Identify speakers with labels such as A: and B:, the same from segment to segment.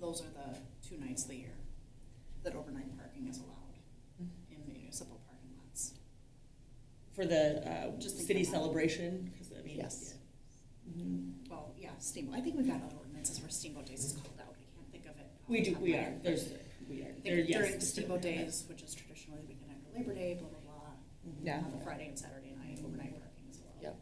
A: those are the two nights of the year that overnight parking is allowed in municipal parking lots.
B: For the uh,
A: Just
B: city
A: think about it.
B: celebration, 'cause I mean.
A: Yes.
B: yeah. Mhm.
A: Well, yeah, steamboat, I think we've got other ordinances where steamboat days is called out, I can't think of it. off
B: We
A: the
B: do,
A: top of
B: we
A: my
B: are,
A: head.
B: there's, we are,
A: I
B: there,
A: think
B: yes.
A: during
B: it's
A: steamboat
B: different,
A: days, which is traditionally the weekend after Labor Day, blah, blah, blah,
B: but-
C: Yeah.
A: on the Friday and Saturday night, overnight parking is allowed.
C: Yep.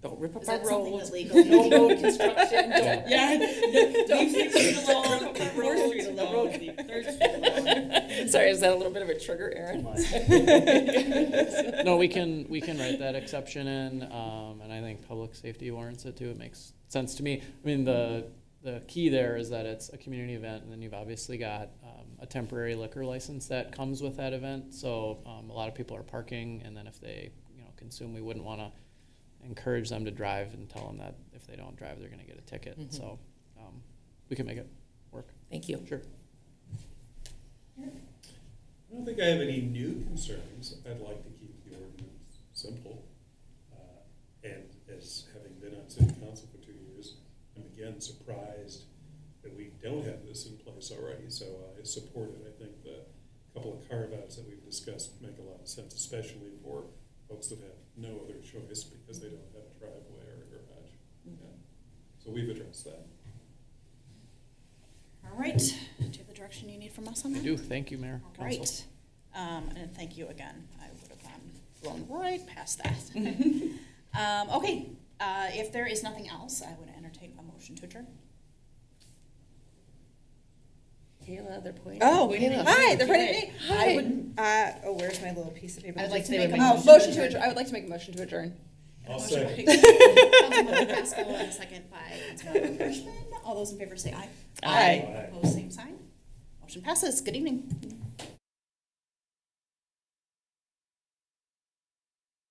C: Don't rip up
A: Is
C: our
A: that something that
C: roads.
A: legally?
C: No road construction,
B: Yeah,
C: don't.
B: yeah, leave Sixth Street alone,
C: Don't-
B: leave Fourth Street
C: the
B: alone,
C: road-
B: leave Third Street alone.
C: Sorry, is that a little bit of a trigger, Aaron?
D: No, we can, we can write that exception in, um, and I think public safety warrants it too, it makes sense to me. I mean, the, the key there is that it's a community event, and then you've obviously got, um, a temporary liquor license that comes with that event, so, um, a lot of people are parking, and then if they, you know, consume, we wouldn't wanna encourage them to drive and tell them that if they don't drive, they're gonna get a ticket,
A: Mm-hmm.
C: Mhm.
D: so, um, we can make it work,
C: Thank you.
D: sure.
E: I don't think I have any new concerns. I'd like to keep the ordinance simple. Uh, And as having been on city council for two years, I'm again surprised that we don't have this in place already, so I support it. I think the couple of carve-outs that we've discussed make a lot of sense, especially for folks that have no other choice because they don't have a driveway or a garage. Yeah. So we've addressed that.
A: All right, do you have the direction you need from us on
D: I
A: that?
D: do, thank you, Mayor,
A: All
D: Council.
A: right, um, and thank you again, I would have gone blown right past that. Um, okay, uh, if there is nothing else, I would entertain a motion to adjourn.
C: Kayla, they're pointing.
F: Oh,
C: pointing at
F: hi,
C: you.
F: they're pointing at me.
C: Hi.
F: I would, uh, oh, where's my little piece of paper?
C: I would like
F: Just
C: to make a
F: oh,
C: motion to
F: Motion to
C: adjourn.
F: adjourn, I would like to make a motion to adjourn.
A: A
E: I'll
A: motion
E: second.
A: by Councilmember Pasco and a second by Councilmember Frischman. All those in favor say aye.
C: Aye.
A: Opposed, same sign. Motion passes. Good evening.